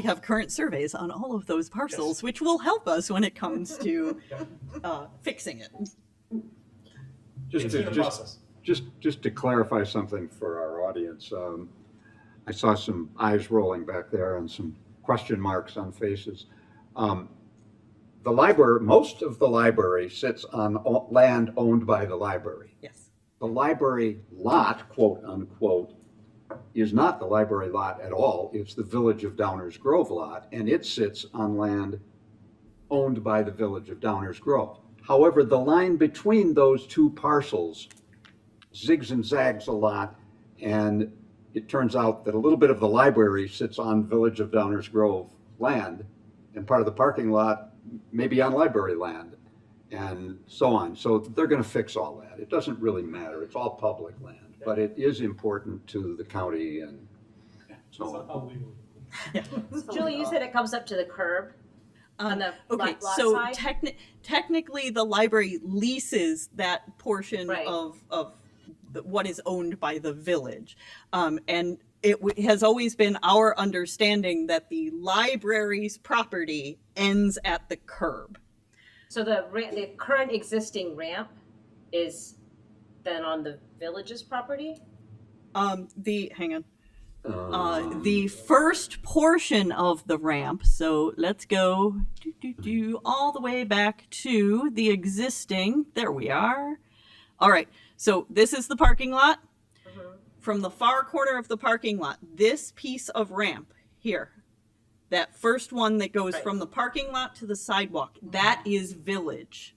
We have current surveys on all of those parcels, which will help us when it comes to uh, fixing it. Just It's to, in the just, process. just, just to clarify something for our audience, um, I saw some eyes rolling back there and some question marks on faces. Um, The library, most of the library sits on o- land owned by the library. Yes. The library lot, quote unquote, is not the library lot at all. It's the Village of Downers Grove lot, and it sits on land owned by the Village of Downers Grove. However, the line between those two parcels zigs and zags a lot, and it turns out that a little bit of the library sits on Village of Downers Grove land, and part of the parking lot may be on library land, and so on. So they're gonna fix all that. It doesn't really matter. It's all public land, but it is important to the county and so It's on. not how we would- Julie, you said it comes up to the curb on the Um, Okay, lot lot so side? techni- technically, the library leases that portion Right. of of the, what is owned by the village, um, and it w- has always been our understanding that the library's property ends at the curb. So the ra- the current existing ramp is then on the village's property? Um, the hang on. Uh, Um, the first portion of the ramp. So let's go do, do, do, all the way back to the existing. There we are. All right. So this is the parking lot. From the far corner of the parking lot, this piece of ramp here, that first one that goes Right. from the parking lot to the sidewalk, that is village.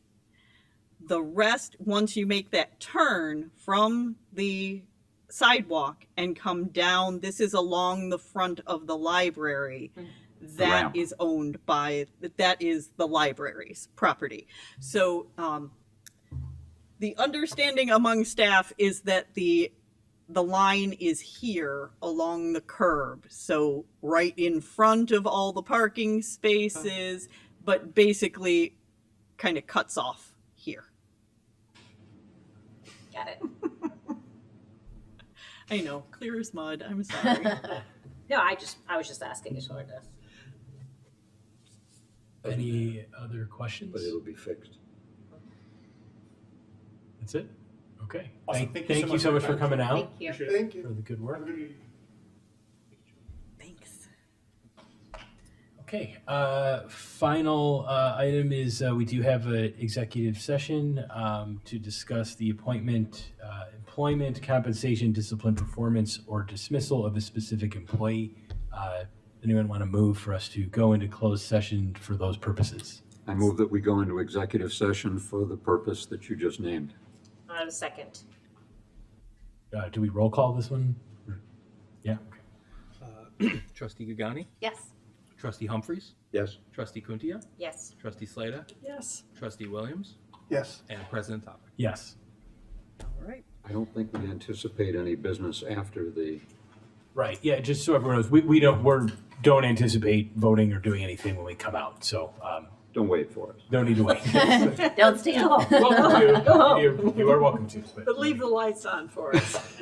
The rest, once you make that turn from the sidewalk and come down, this is along the front of the library. That ramp. is owned by, that is the library's property. So, um, the understanding among staff is that the, the line is here along the curb. So right in front of all the parking spaces, but basically kind of cuts off here. Got it. I know, clear as mud. I'm sorry. No, I just, I was just asking, just wanted to. Any other questions? But it'll be fixed. That's it? Okay. Awesome. Thank thank you so much for coming Thank out, you. Thank for you. the good work. Thanks. Okay, uh, final uh, item is uh, we do have an executive session um, to discuss the appointment, uh, employment, compensation, discipline, performance, or dismissal of a specific employee. Uh, Anyone want to move for us to go into closed session for those purposes? I move that we go into executive session for the purpose that you just named. On a second. Uh, Do we roll call this one? Yeah, okay. Trustee Gagani, Yes. Trustee Humphreys, Yes. Trustee Kuntia, Yes. Trustee Slater, Yes. Trustee Williams, Yes. and President Topic. yes. All right. I don't think we anticipate any business after the, Right, yeah, just so everyone knows, we, we don't, we're, don't anticipate voting or doing anything when we come out, so um, don't wait for us. no need to wait. Don't stay long. Welcome to, you're- you are welcome to. but- But leave the lights on for us.